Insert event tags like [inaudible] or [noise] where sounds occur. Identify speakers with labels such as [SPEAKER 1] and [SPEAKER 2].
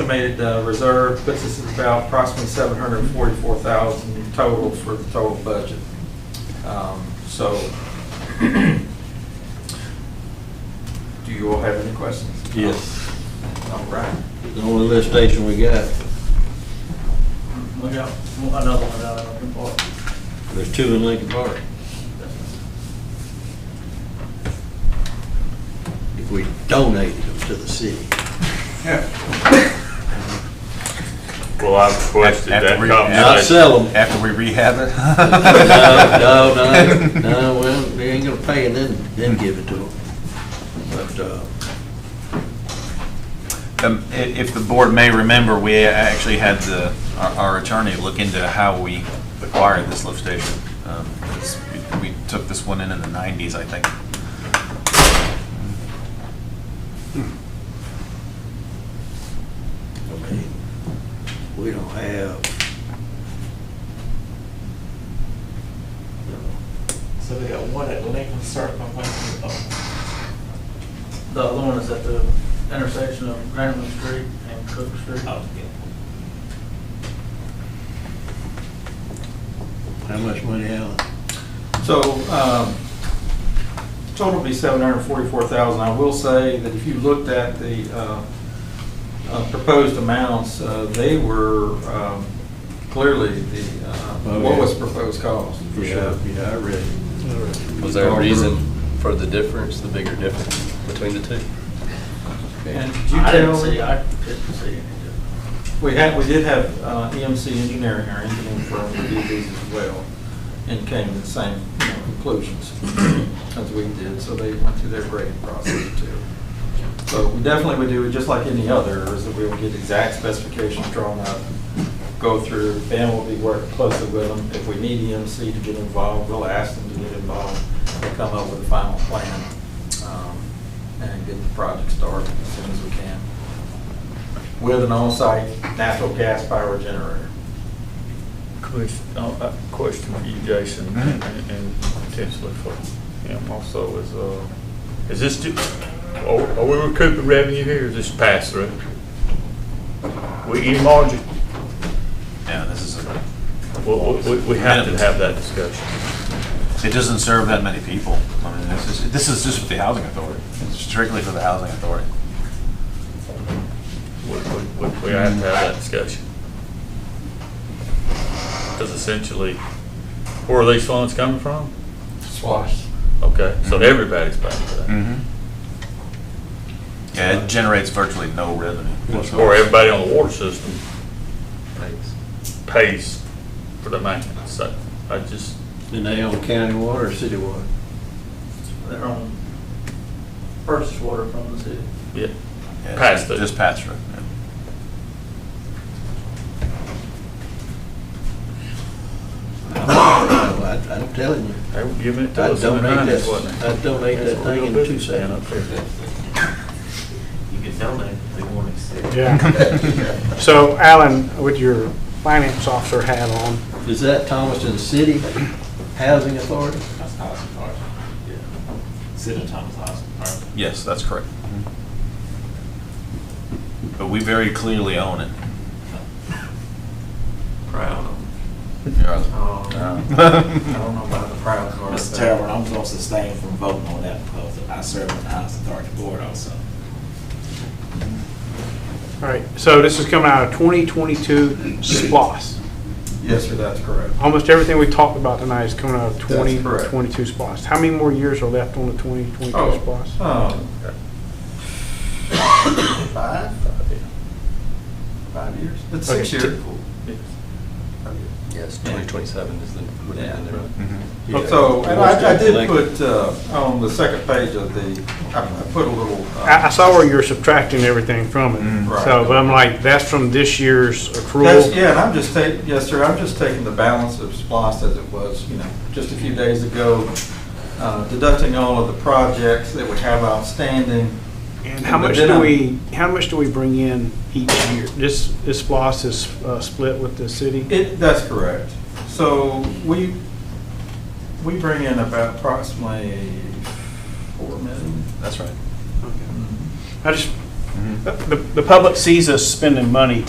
[SPEAKER 1] Estimated uh, reserve puts us at about approximately seven hundred and forty-four thousand total for the total budget. Um, So, do you all have any questions?
[SPEAKER 2] Yes.
[SPEAKER 1] All right.
[SPEAKER 2] The only lift station we got,
[SPEAKER 3] We got another one out of Lincoln Park.
[SPEAKER 2] there's two in Lincoln Park. If we donated them to the city.
[SPEAKER 4] Well, I've requested that
[SPEAKER 5] After we-
[SPEAKER 2] Not
[SPEAKER 4] conversation.
[SPEAKER 2] sell them.
[SPEAKER 5] After we rehab it?
[SPEAKER 2] [laughs] No, no,
[SPEAKER 5] [laughs]
[SPEAKER 2] no, no, well, they ain't gonna pay and then, then give it to them. But, uh,
[SPEAKER 5] Um, i- If the board may remember, we actually had the, our- our attorney look into how we acquired this lift station. Um, because we- We took this one in in the 90s, I think.
[SPEAKER 2] I mean, we don't have. you know,
[SPEAKER 6] So they got one at Lincoln Circle, one at the,
[SPEAKER 3] The other one is at the intersection of Granite Street and Cook Street.
[SPEAKER 6] oh, yeah.
[SPEAKER 2] How much money, Alan?
[SPEAKER 1] So, um, total would be seven hundred and forty-four thousand. I will say that if you looked at the, uh, uh, proposed amounts, uh, they were, um, clearly the, uh,
[SPEAKER 2] Oh,
[SPEAKER 1] what
[SPEAKER 2] yeah.
[SPEAKER 1] was proposed cost.
[SPEAKER 2] For sure. Yeah, I read it.
[SPEAKER 7] Was there a reason for the difference, the bigger difference between the two?
[SPEAKER 1] And did you
[SPEAKER 3] I didn't
[SPEAKER 1] tell,
[SPEAKER 3] see, I didn't see any difference.
[SPEAKER 1] we had, we did have, uh, EMC Engineering, our engineering firm, do these as well, and came to the same, you know, conclusions as we did, so they went through their grading process too. So we definitely would do, it just like any other, is that we would get exact specifications drawn up, go through, Ben will be working closely with them. If we need EMC to get involved, we'll ask them to get involved, and come up with a final plan, um, and get the project started as soon as we can. With an on-site natural gas power generator.
[SPEAKER 4] Question, uh, uh, question for you, Jason, and and potentially for him also is, uh, is this, ju- are are we recouping revenue here or is this pass through? We any margin,
[SPEAKER 5] Yeah, this is, a-
[SPEAKER 4] we, we- we have to have that discussion.
[SPEAKER 5] it doesn't serve that many people. I mean, this is, this is just for the housing authority, It's strictly for the housing authority.
[SPEAKER 4] We, we, we we have to have that discussion. Because essentially, where are these funds coming from?
[SPEAKER 1] Swash.
[SPEAKER 4] Okay, so
[SPEAKER 2] Mm-hmm.
[SPEAKER 5] Mhm.
[SPEAKER 4] everybody's paying for that.
[SPEAKER 5] Yeah, it generates virtually no revenue.
[SPEAKER 2] Mm-hmm.
[SPEAKER 4] Or everybody on the water system pays for the maintenance, so I just,
[SPEAKER 2] And they own county water or
[SPEAKER 7] [coughs]
[SPEAKER 2] city water?
[SPEAKER 3] They're on purchase water from the city.
[SPEAKER 4] yeah.
[SPEAKER 5] Yeah, it's
[SPEAKER 4] Pass through.
[SPEAKER 5] Just pass through. yeah.
[SPEAKER 2] I- I'm telling you,
[SPEAKER 4] They were giving it to
[SPEAKER 2] I'd
[SPEAKER 4] us in the
[SPEAKER 2] donate that-
[SPEAKER 4] nineties, wasn't it?
[SPEAKER 2] I'd donate
[SPEAKER 4] That's
[SPEAKER 2] that
[SPEAKER 4] what
[SPEAKER 2] thing
[SPEAKER 4] we're
[SPEAKER 2] in
[SPEAKER 4] gonna do
[SPEAKER 2] two
[SPEAKER 4] down up
[SPEAKER 2] seconds.
[SPEAKER 4] there.
[SPEAKER 6] You could donate if they want to see.
[SPEAKER 1] [laughs]
[SPEAKER 8] Yeah. So Alan, with your finance officer hat on,
[SPEAKER 2] is that Thomaston City Housing Authority?
[SPEAKER 6] That's Housing Park. Yeah. City of Thomas Housing Park.
[SPEAKER 5] [laughs] Yes, that's correct. But we very clearly own it.
[SPEAKER 6] Proud of them.
[SPEAKER 1] I don't know about the proud part.
[SPEAKER 9] Mr.
[SPEAKER 1] but-
[SPEAKER 9] Terrell, I'm going to sustain from voting on that because I serve on the House Authority Board also.
[SPEAKER 8] all right, so this is coming out of 2022 SPOS.
[SPEAKER 1] Yes, sir, that's correct.
[SPEAKER 8] Almost everything we talked about tonight is coming out of
[SPEAKER 1] correct.
[SPEAKER 8] 2022 SPOS. How many more years are left on the 2022 SPOS?
[SPEAKER 1] Oh, um, Five? Five years? It's
[SPEAKER 8] Okay,
[SPEAKER 1] six
[SPEAKER 8] t-
[SPEAKER 1] years.
[SPEAKER 7] Yes, 2027 is the, would have been the-
[SPEAKER 1] So, and I, I did
[SPEAKER 2] Like-
[SPEAKER 1] put, uh, on the second page of the, I I put a little. uh,
[SPEAKER 8] I, I saw where you were subtracting everything from it,
[SPEAKER 1] Right.
[SPEAKER 8] so, but I'm like, that's from this year's accrual.
[SPEAKER 1] Mm. That's, yeah, and I'm just taking, yes, sir, I'm just taking the balance of SPOS as it was, you know, just a few days ago, uh, deducting all of the projects that we have outstanding.
[SPEAKER 8] And how much
[SPEAKER 1] But then um,
[SPEAKER 8] do
[SPEAKER 1] I'm-
[SPEAKER 8] we, how much do we bring in each year? This, this SPOS is uh, split with the city?
[SPEAKER 1] It, that's correct. So we, we bring in about approximately four million.
[SPEAKER 5] That's right.
[SPEAKER 8] I just, the, the public sees us spending money